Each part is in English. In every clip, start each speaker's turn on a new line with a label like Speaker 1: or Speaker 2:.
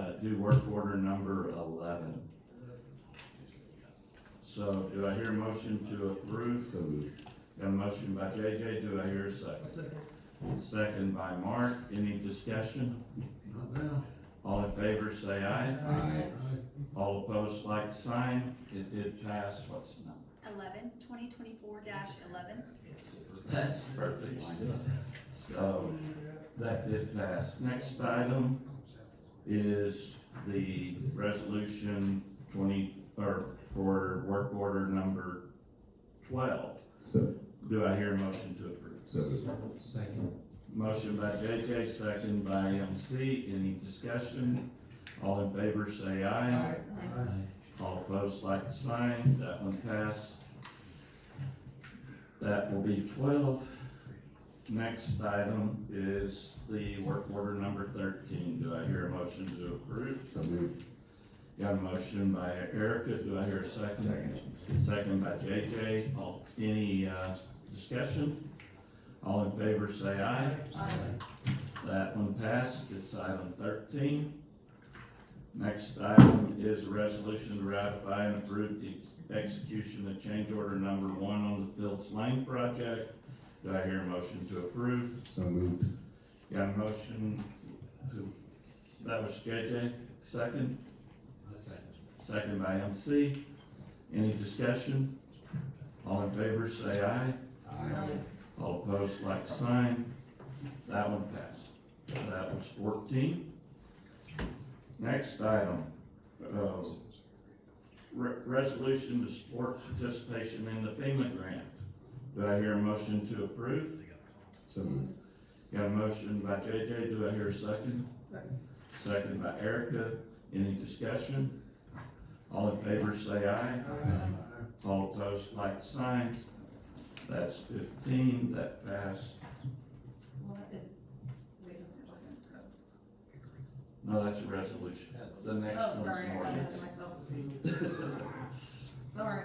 Speaker 1: that do Uh, work order number eleven. So do I hear a motion to approve?
Speaker 2: So moved.
Speaker 1: Got a motion by JJ, do I hear a second?
Speaker 3: Second.
Speaker 1: Second by Mark, any discussion?
Speaker 3: Not now.
Speaker 1: All in favor, say aye.
Speaker 4: Oh,
Speaker 2: Aye.
Speaker 1: All opposed, like sign, it did pass, what's the number?
Speaker 5: eleven, twenty twenty-four dash eleven.
Speaker 1: That's perfect. So, that is passed. Next item is the resolution twenty, or for work order number twelve.
Speaker 2: So,
Speaker 1: Do I hear a motion to approve?
Speaker 2: so moved.
Speaker 3: Second.
Speaker 1: Motion by JJ, second by MC. Any discussion? All in favor, say aye. All opposed, like the sign, that one passed. That will be twelve. Next item is the work order number thirteen, do I hear a motion to approve?
Speaker 2: So moved.
Speaker 1: Got a motion by Erica, do I hear a second? Second by JJ, all, any, uh, discussion? All in favor, say aye. That one passed, it's item thirteen. Next item is a resolution to ratify and approve the execution of change order number one on the Fields Lane project. Do I hear a motion to approve?
Speaker 2: So moved.
Speaker 1: Got a motion? That was JJ, second, second by MC. Any discussion? All in favor, say aye. All opposed, like sign. That one passed. That was fourteen. Next item, uh, re- resolution to support participation in the FEMA grant. Do I hear a motion to approve?
Speaker 2: So moved.
Speaker 1: Got a motion by JJ, do I hear a second? Second by Erica, any discussion? All in favor, say aye. All opposed, like sign. That's fifteen, that passed.
Speaker 5: Well, that is, wait, that's an ordinance, so-
Speaker 1: No, that's a resolution. The next
Speaker 5: Oh,
Speaker 1: one's
Speaker 5: sorry,
Speaker 1: an
Speaker 5: I got ahead of
Speaker 1: ordinance.
Speaker 5: myself. Sorry.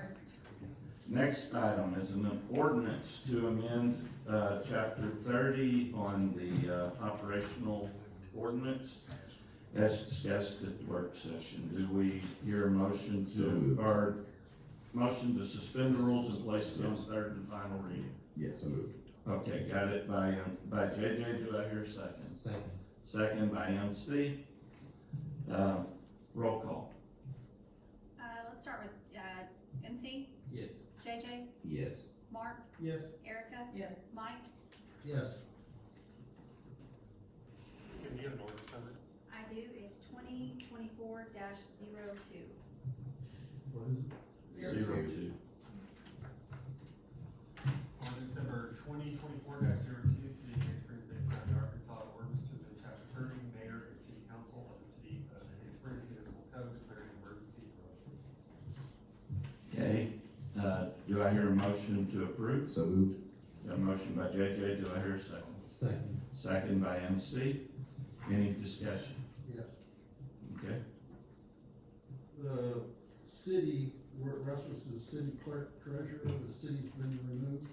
Speaker 1: Next item is an ordinance to amend, uh, chapter thirty on the, uh, operational ordinance as discussed at the work session. Do we hear a motion
Speaker 2: So
Speaker 1: to,
Speaker 2: moved.
Speaker 1: or motion to suspend the rules and place it on third and final reading?
Speaker 2: Yes, so moved.
Speaker 1: Okay, got it by, um, by JJ. Do I hear a second?
Speaker 3: Second.
Speaker 1: Second by MC. Uh, roll call.
Speaker 5: Uh, let's start with, uh, MC,
Speaker 3: Yes.
Speaker 5: JJ,
Speaker 2: Yes.
Speaker 5: Mark,
Speaker 3: Yes.
Speaker 5: Erica,
Speaker 4: Yes.
Speaker 5: Mike.
Speaker 3: Yes.
Speaker 6: Can you get an order number?
Speaker 5: I do, it's twenty twenty-four dash zero two.
Speaker 3: What is
Speaker 2: Zero
Speaker 1: Zero
Speaker 2: two.
Speaker 1: two.
Speaker 6: Ordinance number twenty twenty-four dash zero two, City of Hastings, State of County, Arkansas, ordinance to the chapter thirty, mayor and city council of the city of Hastings Municipal Code declaring an emergency.
Speaker 1: Okay, uh, do I hear a motion to approve?
Speaker 2: So moved.
Speaker 1: Got a motion by JJ, do I hear a second?
Speaker 3: Second.
Speaker 1: Second by MC, any discussion?
Speaker 7: Yes,
Speaker 1: Okay,
Speaker 7: the city, where it references city clerk treasurer, the city's been removed.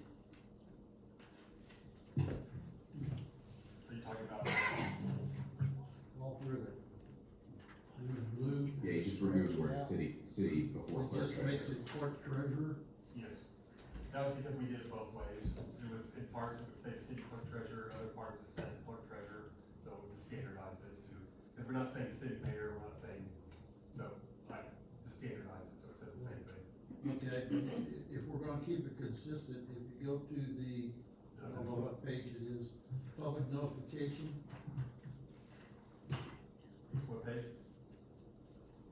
Speaker 6: So you're talking about,
Speaker 7: all through it. In blue.
Speaker 2: Yeah, you just removed the word
Speaker 7: Yeah.
Speaker 2: city, city before
Speaker 7: It
Speaker 2: clerk
Speaker 7: just makes
Speaker 2: treasurer.
Speaker 7: it clerk treasurer,
Speaker 6: yes, that was because we did it both ways, it was in parts it would say city clerk treasurer, other parts it said clerk treasurer, so we just standardized it to, if we're not saying city mayor, we're not saying, no, like, just standardize it, so it said the same thing.
Speaker 7: okay? If we're gonna keep it consistent, if you go to the, I don't know what page it is, public notification,
Speaker 6: What page?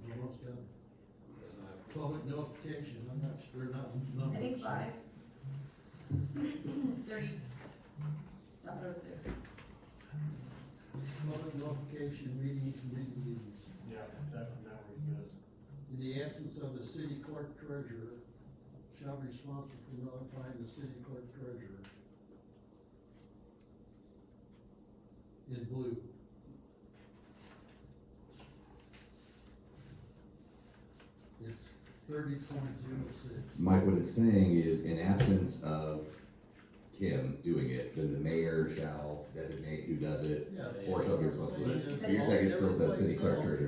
Speaker 7: you know, it's got- public notification, I'm not sure, not numbers.
Speaker 4: I think five. Thirty. Dot oh six.
Speaker 7: Public notification, meeting, committee meetings.
Speaker 6: Yeah, that, that one's good.
Speaker 7: In the absence of the city clerk treasurer, shall be responsible for notifying the city clerk treasurer. In blue. It's thirty point zero six.
Speaker 2: Mike, what it's saying is in absence of Kim doing it, then the mayor shall designate who does it
Speaker 7: Yeah.
Speaker 2: or shall be responsible. But You're saying it still says city clerk treasurer.